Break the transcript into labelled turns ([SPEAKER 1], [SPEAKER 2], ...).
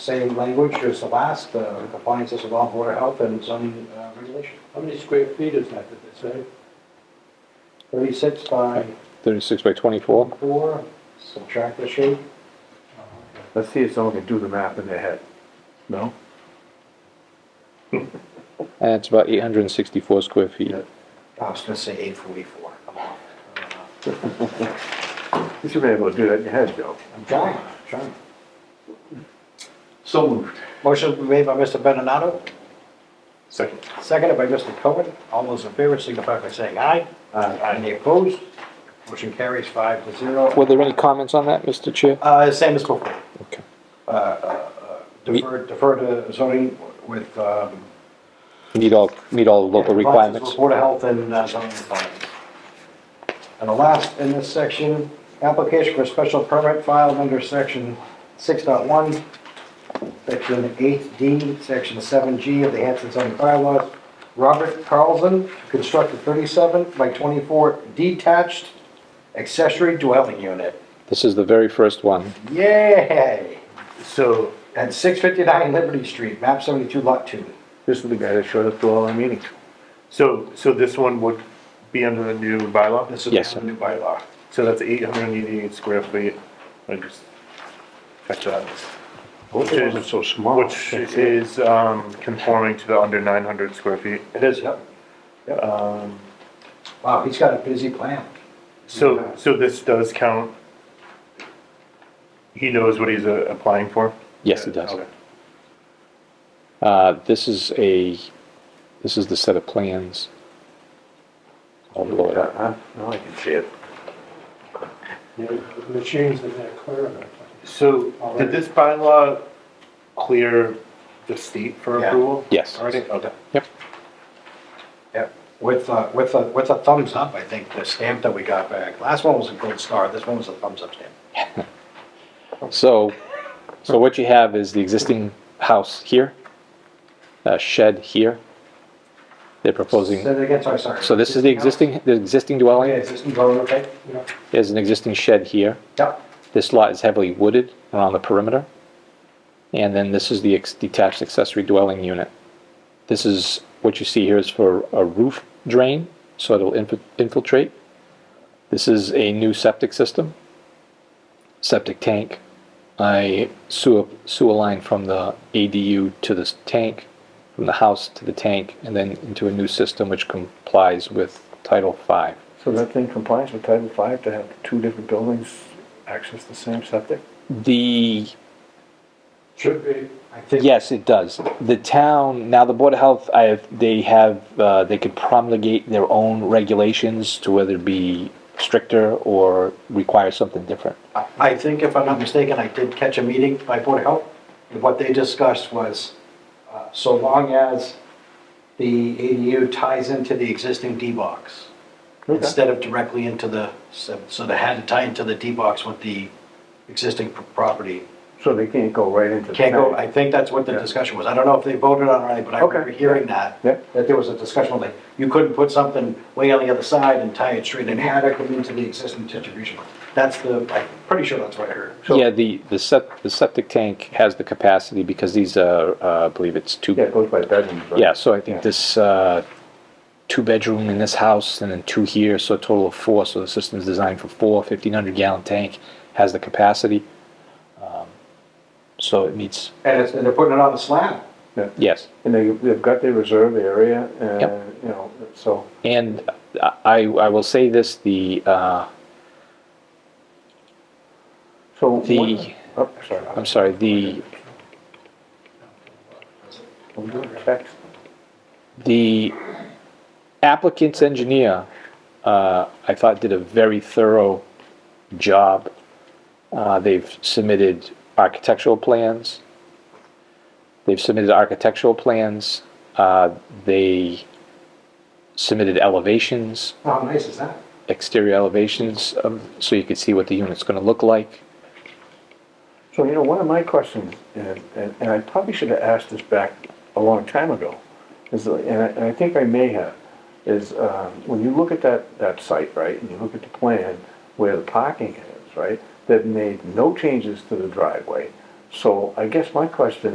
[SPEAKER 1] same language as the last, uh, compliance with law, water health and zoning uh, regulation.
[SPEAKER 2] How many square feet is that, did they say?
[SPEAKER 1] Thirty-six by
[SPEAKER 3] 36 by 24?
[SPEAKER 1] four, subtract the shape,
[SPEAKER 4] Let's see if someone can do the math in their head. No?
[SPEAKER 3] And it's about 864 square feet.
[SPEAKER 1] I was gonna say eight forty-four, I'm off.
[SPEAKER 4] You should be able to do that in your head, Joe.
[SPEAKER 1] I'm trying, I'm trying.
[SPEAKER 4] So moved.
[SPEAKER 1] Motion made by Mr. Benonato,
[SPEAKER 4] Second.
[SPEAKER 1] seconded by Mr. Cohen. All those in favor signify by saying aye. Aye. Any opposed? Motion carries five to
[SPEAKER 3] Were
[SPEAKER 1] zero.
[SPEAKER 3] there any comments on that, Mr. Chair?
[SPEAKER 1] Uh, same as before.
[SPEAKER 3] Okay.
[SPEAKER 1] Uh, uh, uh, Defer, defer to zoning with, um.
[SPEAKER 3] Meet all, meet all local requirements.
[SPEAKER 1] Board of Health and uh, zoning requirements. And the last in this section, application for special permit filed under section 6.1, section eight D, section seven G of the Hanson zoning bylaws. Robert Carlson to construct a thirty-seven by twenty-four detached accessory dwelling unit.
[SPEAKER 3] This is the very first one.
[SPEAKER 1] Yay!
[SPEAKER 4] So,
[SPEAKER 1] At six fifty-nine Liberty Street, map seventy-two lot two.
[SPEAKER 4] this is the guy that showed up to all our meetings.
[SPEAKER 5] So, so this one would be under the new bylaw,
[SPEAKER 1] This is
[SPEAKER 3] Yes, sir.
[SPEAKER 1] the new bylaw.
[SPEAKER 5] so that's eight hundred and eighty-eight square feet, I just, check that.
[SPEAKER 4] Both of them are so small.
[SPEAKER 5] Which is, um, conforming to the under nine hundred square feet.
[SPEAKER 1] It is, yep.
[SPEAKER 5] Um,
[SPEAKER 1] Wow, he's got a busy plan.
[SPEAKER 5] so, so this does count. He knows what he's uh, applying for?
[SPEAKER 3] Yes, it does.
[SPEAKER 5] Okay.
[SPEAKER 3] Uh, This is a, this is the set of plans. I'll blow it up.
[SPEAKER 4] Huh? Now I can see it.
[SPEAKER 2] Yeah, the machines in that corridor.
[SPEAKER 5] So,
[SPEAKER 1] uh,
[SPEAKER 5] did this bylaw clear the state for
[SPEAKER 1] Yeah.
[SPEAKER 5] approval?
[SPEAKER 3] Yes.
[SPEAKER 5] Already, okay.
[SPEAKER 3] Yep.
[SPEAKER 1] Yep, with, uh, with, a- with a thumbs up, I think, the stamp that we got back. Last one was a gold star, this one was a thumbs up stamp.
[SPEAKER 3] So, so what you have is the existing house here, a shed here. They're
[SPEAKER 1] Say
[SPEAKER 3] proposing,
[SPEAKER 1] that again, sorry, sorry. Oh,
[SPEAKER 3] so this is the existing, the existing dwelling.
[SPEAKER 1] Okay, existing dwelling, okay?
[SPEAKER 2] Yeah.
[SPEAKER 3] There's an existing shed here.
[SPEAKER 1] Yep,
[SPEAKER 3] This lot is heavily wooded around the perimeter. And then this is the ex- detached accessory dwelling unit. This is, what you see here is for a roof drain, so it'll inf- infiltrate. This is a new septic system, septic tank, a sewer, sewer line from the ADU to this tank, from the house to the tank, and then into a new system which complies with Title Five.
[SPEAKER 4] So that thing complies with Title Five to have two different buildings access the same septic?
[SPEAKER 3] The
[SPEAKER 2] Should be.
[SPEAKER 1] I think.
[SPEAKER 3] Yes, it does. The town, now the Board of Health, I have, they have, uh, they could promulgate their own regulations to whether it be stricter or require something different.
[SPEAKER 1] I- I think if I'm not mistaken, I did catch a meeting by Board of Health, and what they discussed was, uh, so long as the ADU ties into the existing D-box, instead of directly into the, so so they had to tie into the D-box with the existing p- property.
[SPEAKER 4] So they can't go right into the.
[SPEAKER 1] Can't go,
[SPEAKER 4] tank.
[SPEAKER 1] I think that's what the discussion was. I don't know if they voted on it or anything, but I remember
[SPEAKER 4] Okay.
[SPEAKER 1] hearing that.
[SPEAKER 4] Yeah.
[SPEAKER 1] That there was a discussion, like, you couldn't put something way on the other side and tie it straight in, had to come into the existing distribution. That's the, I'm pretty sure that's what I heard.
[SPEAKER 3] Yeah, the, the sep, the septic tank has the capacity because these are, uh, I believe it's two.
[SPEAKER 4] Yeah, it goes by bedrooms, right?
[SPEAKER 3] Yeah, so I think
[SPEAKER 4] Yeah.
[SPEAKER 3] this, uh, two-bedroom in this house and then two here, so a total of four, so the system's designed for four, fifteen hundred gallon tank, has the capacity. Um, So it meets,
[SPEAKER 1] And it's, and they're putting it on the slab.
[SPEAKER 3] yes.
[SPEAKER 4] And they, they've got their reserve area and,
[SPEAKER 3] Yep.
[SPEAKER 4] you know, so.
[SPEAKER 3] And I, I will say this, the, uh,
[SPEAKER 4] So. what-
[SPEAKER 3] The-
[SPEAKER 4] Oh, sorry.
[SPEAKER 3] I'm sorry, the,
[SPEAKER 4] I'm doing text.
[SPEAKER 3] the applicant's engineer, uh, I thought did a very thorough job. Uh, they've submitted architectural plans. They've submitted architectural plans. Uh, they submitted elevations,
[SPEAKER 1] How Oh, nice is that?
[SPEAKER 3] exterior elevations, of, so you could see what the unit's gonna look like.
[SPEAKER 4] So, you know, one of my questions, and, and and I probably should have asked this back a long time ago, is, uh, and I, and I think I may have, is, um, when you look at that, that site, right, and you look at the plan where the parking is, right, they've made no changes to the driveway, So I guess my question